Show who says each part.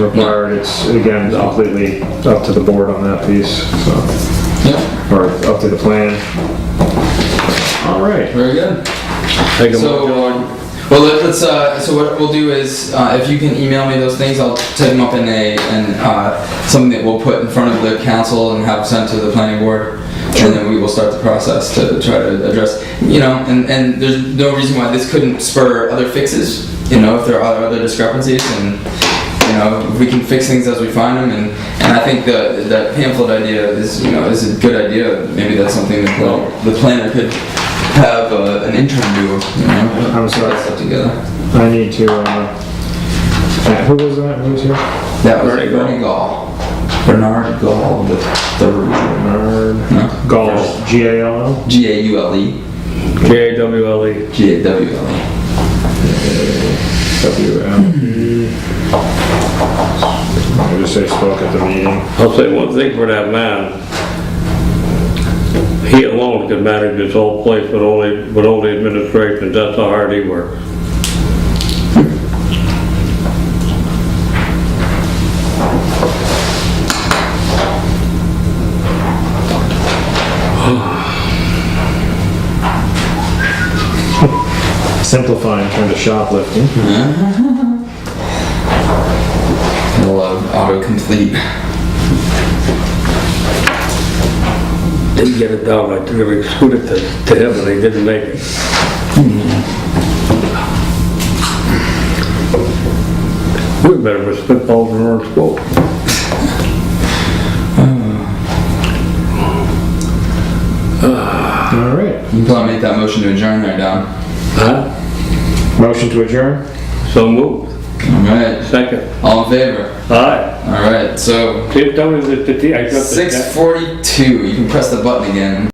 Speaker 1: required, it's, again, it's completely up to the board on that piece, so,
Speaker 2: Yep,
Speaker 1: or up to the plan. All right.
Speaker 2: very good.
Speaker 1: Take a
Speaker 2: So,
Speaker 1: look.
Speaker 2: um, well, let- let's, uh, so what we'll do is, uh, if you can email me those things, I'll type them up in a, and, uh, something that we'll put in front of the council and have sent to the planning board. And then we will start the process to try to address, you know, and, and there's no reason why this couldn't spur other fixes, you know, if there are other discrepancies and, you know, we can fix things as we find them and, and I think the, that pamphlet idea is, you know, is a good idea. Maybe that's something that the- the planner could have uh, an intern do, you know?
Speaker 1: I'm sorry.
Speaker 2: Put that together.
Speaker 1: I need to, uh, who was that, who was here?
Speaker 2: That was Bernie Gall. Bernard Gall, the third,
Speaker 1: Bernard Gall, G A L L?
Speaker 2: G A U L E,
Speaker 3: J A W L E.
Speaker 2: G A W L E.
Speaker 1: W M E. I just say spoke at the meeting.
Speaker 3: I'll say one thing for that man. He alone could manage this whole place with all the, with all the administrations, that's how hard he worked.
Speaker 1: Simplifying turned to shoplifting.
Speaker 2: I love autocomplete.
Speaker 3: Didn't get it down, I took every scoot it to, to him, and he didn't make it. We better have spitballs in our school.
Speaker 1: All right.
Speaker 2: You probably make that motion to adjourn there, Don.
Speaker 3: Huh?
Speaker 1: Motion to adjourn?
Speaker 3: So moved,
Speaker 2: Alright,
Speaker 3: second.
Speaker 2: all in favor?
Speaker 3: Aye.
Speaker 2: Alright, so
Speaker 3: See, tell me that the, I got the.
Speaker 2: six forty-two, you can press the button again.